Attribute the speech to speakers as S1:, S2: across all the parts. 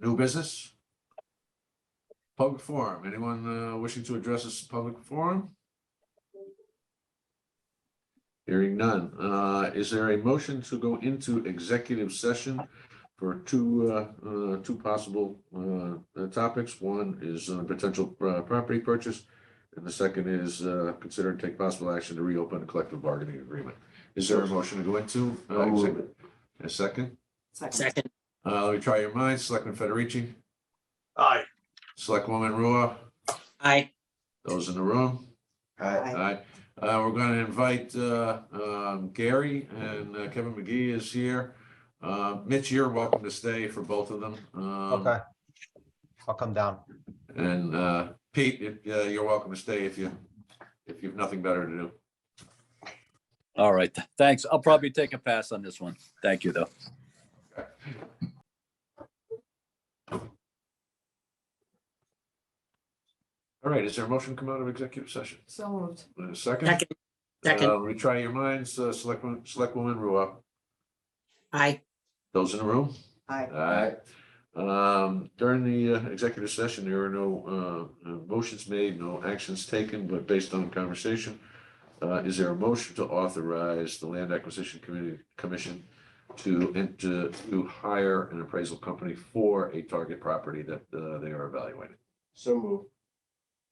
S1: New business? Public forum, anyone uh, wishing to address this public forum? Hearing none, Uh, is there a motion to go into executive session for two, uh, uh, two possible uh, uh, topics? One is uh, potential uh, property purchase, and the second is uh, consider and take possible action to reopen a collective bargaining agreement. Is there a motion to go into? uh,
S2: I'll move
S1: exec- A second?
S3: Second.
S2: Second,
S1: Uh, let me try your minds. Selectman Federici,
S4: Aye.
S1: Selectwoman Ruoff,
S2: aye.
S1: those in the room.
S4: Aye.
S1: Aye. Uh, we're gonna invite, uh, um, Gary and uh, Kevin McGee is here. Uh, Mitch, you're welcome to stay for both of them. Um,
S5: Okay. I'll come down.
S1: And, uh, Pete, if, uh, you're welcome to stay if you, if you've nothing better to do.
S6: All right, th- thanks. I'll probably take a pass on this one. Thank you, though.
S1: All right, is there a motion to come out of executive session?
S3: So moved.
S1: Uh, Second?
S2: Second, second.
S1: Uh, Let me try your minds. Uh, Selectwoman, Selectwoman Ruoff,
S2: aye.
S1: those in the room?
S3: Aye.
S1: Aye. Um, during the uh, executive session, there were no, uh, uh, motions made, no actions taken, but based on conversation, uh, is there a motion to authorize the Land Acquisition Committee, Commission to, and to, to hire an appraisal company for a target property that, uh, they are evaluating?
S4: So moved.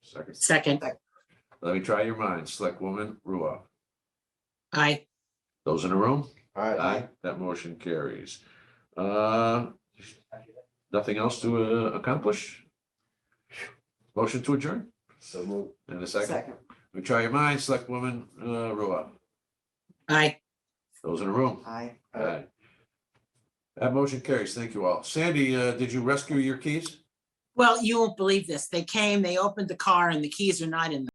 S1: Second,
S2: Second,
S1: let me try your minds. Selectwoman Ruoff,
S2: aye.
S1: those in the room?
S4: Aye.
S1: That motion carries. Uh, Nothing else to uh, accomplish? Motion to adjourn?
S4: So moved.
S1: In a second. We try your mind, select woman, uh, Ruoff.
S2: Aye.
S1: Those in the room.
S3: Aye.
S1: Aye. That motion carries. Thank you all. Sandy, uh, did you rescue your keys?
S2: Well, you won't believe this. They came, they opened the car and the keys are not in the